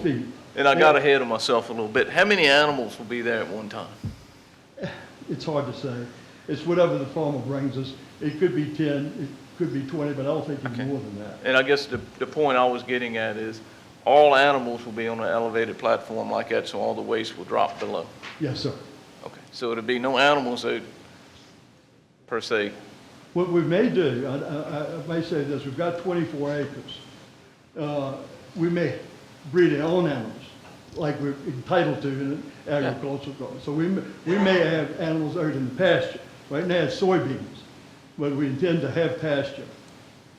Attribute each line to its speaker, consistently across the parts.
Speaker 1: feet.
Speaker 2: And I got ahead of myself a little bit. How many animals will be there at one time?
Speaker 1: It's hard to say. It's whatever the farmer brings us. It could be 10, it could be 20, but I don't think it's
Speaker 2: Okay.
Speaker 1: more than that.
Speaker 2: And I guess the, the point I was getting at is, all animals will be on an elevated platform like that, so all the waste will drop below.
Speaker 1: Yes, sir.
Speaker 2: Okay, so it'll be no animals that, per se,
Speaker 1: What we may do, I- I, I may say this, we've got 24 acres. Uh, We may breed our own animals, like we're entitled to in an agricultural garden. So we, m- we may have animals out in the pasture. Right now it's soybeans, but we intend to have pasture.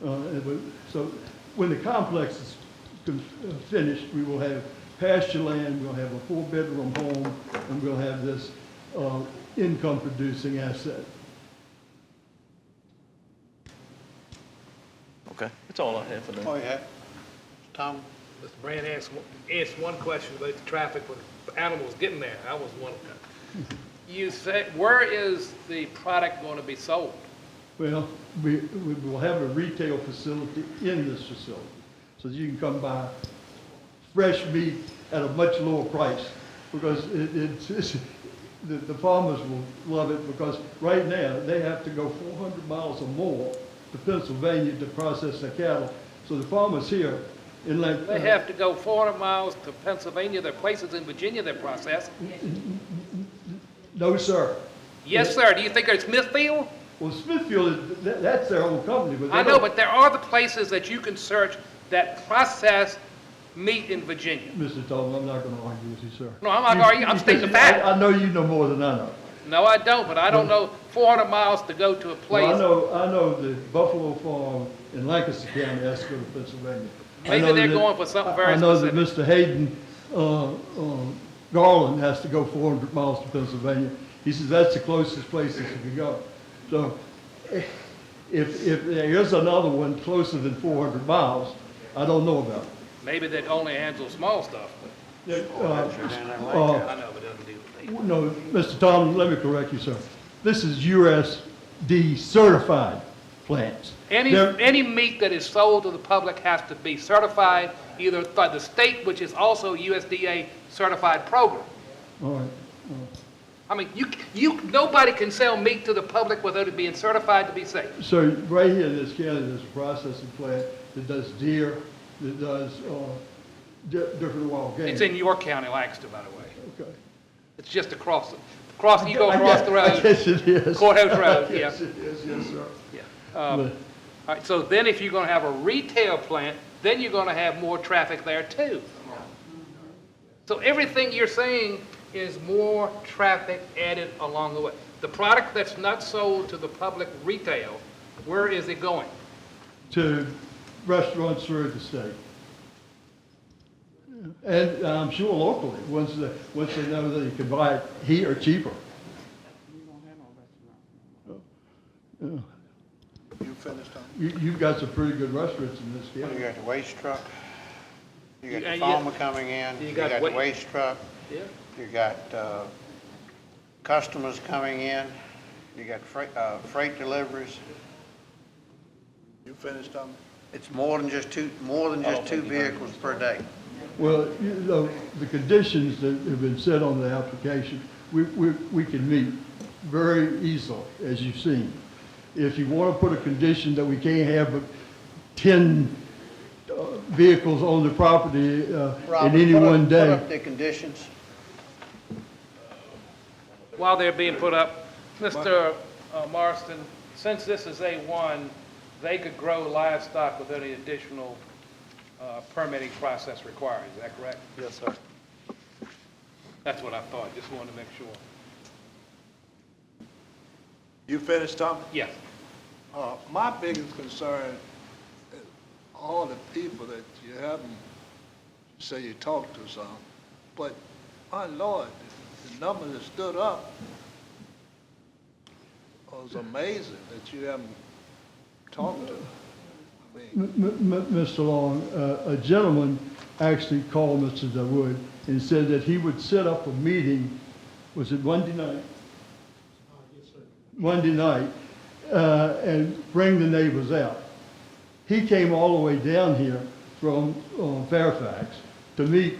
Speaker 1: Uh, and we- So when the complex is con- uh, finished, we will have pasture land, we'll have a four-bedroom home, and we'll have this uh, income-producing asset.
Speaker 2: okay? That's all I have for now.
Speaker 3: Oh, yeah. Tom?
Speaker 4: Mr. Brand asked, one- asked one question about the traffic with animals getting there. I was one of them. You say, where is the product going to be sold?
Speaker 1: Well, we, we will have a retail facility in this facility, so that you can come buy fresh meat at a much lower price, because it, it's, it's, the, the farmers will love it, because right now, they have to go four hundred miles or more to Pennsylvania to process their cattle, so the farmers here, in uh, like.
Speaker 4: They have to go 400 miles to Pennsylvania, there are places in Virginia that process.
Speaker 1: No, sir.
Speaker 4: Yes, sir, do you think it's Smithfield?
Speaker 1: Well, Smithfield, is- that, that's their own company, but. they
Speaker 4: I know,
Speaker 1: don't-
Speaker 4: but there are the places that you can search that process meat in Virginia.
Speaker 1: Mr. Tolman, I'm not gonna argue with you, sir.
Speaker 4: No, I'm not
Speaker 1: You-
Speaker 4: arguing. I'm
Speaker 1: you-
Speaker 4: stating the
Speaker 1: I-
Speaker 4: fact.
Speaker 1: I know you know more than I know.
Speaker 4: No, I don't, but I don't know 400 miles to go to a
Speaker 1: Well, I
Speaker 4: place.
Speaker 1: know, I know the Buffalo Farm in Lancaster County, Esco, Pennsylvania. I
Speaker 4: Maybe
Speaker 1: know
Speaker 4: they're
Speaker 1: that-
Speaker 4: going for something very
Speaker 1: I- I know that Mr. Hayden, uh, uh, Garland has to go four hundred miles to Pennsylvania. He says that's the closest place that you can go. So eh, if, if there is another one closer than four hundred miles, I don't know about it.
Speaker 4: Maybe that only handles small stuff.
Speaker 1: There- uh, uh,
Speaker 4: I know, but it doesn't do the thing.
Speaker 1: No, Mr. Tom, let me correct you, sir. This is USD certified plants.
Speaker 4: Any,
Speaker 1: They're-
Speaker 4: any meat that is sold to the public has to be certified either by the state, which is also USDA certified program.
Speaker 1: All right.
Speaker 4: I mean, you, you, nobody can sell meat to the public without it being certified to be safe.
Speaker 1: So right here in this county, there's a processing plant that does deer, that does uh, di- different wild game.
Speaker 4: It's in your county, Lancaster, by the way.
Speaker 1: Okay.
Speaker 4: It's just across, the across, you go
Speaker 1: I
Speaker 4: across the
Speaker 1: guess- I
Speaker 4: road.
Speaker 1: guess it is.
Speaker 4: Courthouse Road,
Speaker 1: Yes,
Speaker 4: yeah.
Speaker 1: it is, yes, sir.
Speaker 4: Yeah. Um,
Speaker 1: But-
Speaker 4: All right, so then if you're gonna have a retail plant, then you're gonna have more traffic there too. So everything you're saying is more traffic added along the way. The product that's not sold to the public retail, where is it going?
Speaker 1: to restaurants through the state. And I'm sure locally, once they, once they know that you can buy it here cheaper.
Speaker 3: You finished, Tom?
Speaker 1: Oh, You, you've got some pretty good restaurants in this
Speaker 3: You
Speaker 1: county.
Speaker 3: got the waste truck, you got
Speaker 4: And
Speaker 3: the
Speaker 4: you-
Speaker 3: farmer coming in,
Speaker 4: you
Speaker 3: you
Speaker 4: got
Speaker 3: got
Speaker 4: wa-
Speaker 3: the waste truck,
Speaker 4: Yeah.
Speaker 3: you got uh, customers coming in, you got freight, uh, freight deliveries. You finished, Tom? It's more than just two, more than just two vehicles per day.
Speaker 1: Well, you know, the conditions that have been set on the application, we, we, we can meet very easily, as you've seen. If you want to put a condition that we can't have but ten uh, vehicles on the property uh,
Speaker 3: Robert,
Speaker 1: in any
Speaker 3: put up-
Speaker 1: one day.
Speaker 3: Put up the conditions.
Speaker 4: While they're being put up, Mr. uh, Marston, since this is A1, they could grow livestock without any additional uh, permitting process required, is that correct?
Speaker 3: Yes, sir.
Speaker 4: That's what I thought, just wanted to make sure.
Speaker 5: You finished, Tom?
Speaker 4: Yes.
Speaker 5: Uh, my biggest concern is all the people that you haven't, you say you talked to some, but, my Lord, the- the number that stood up was amazing that you haven't talked to. I mean,
Speaker 1: M- m- m- Mr. Long, uh, a gentleman actually called Mr. DeWood and said that he would set up a meeting, was it Monday night? Monday night, uh, and bring the neighbors out. He came all the way down here from uh, Fairfax to meet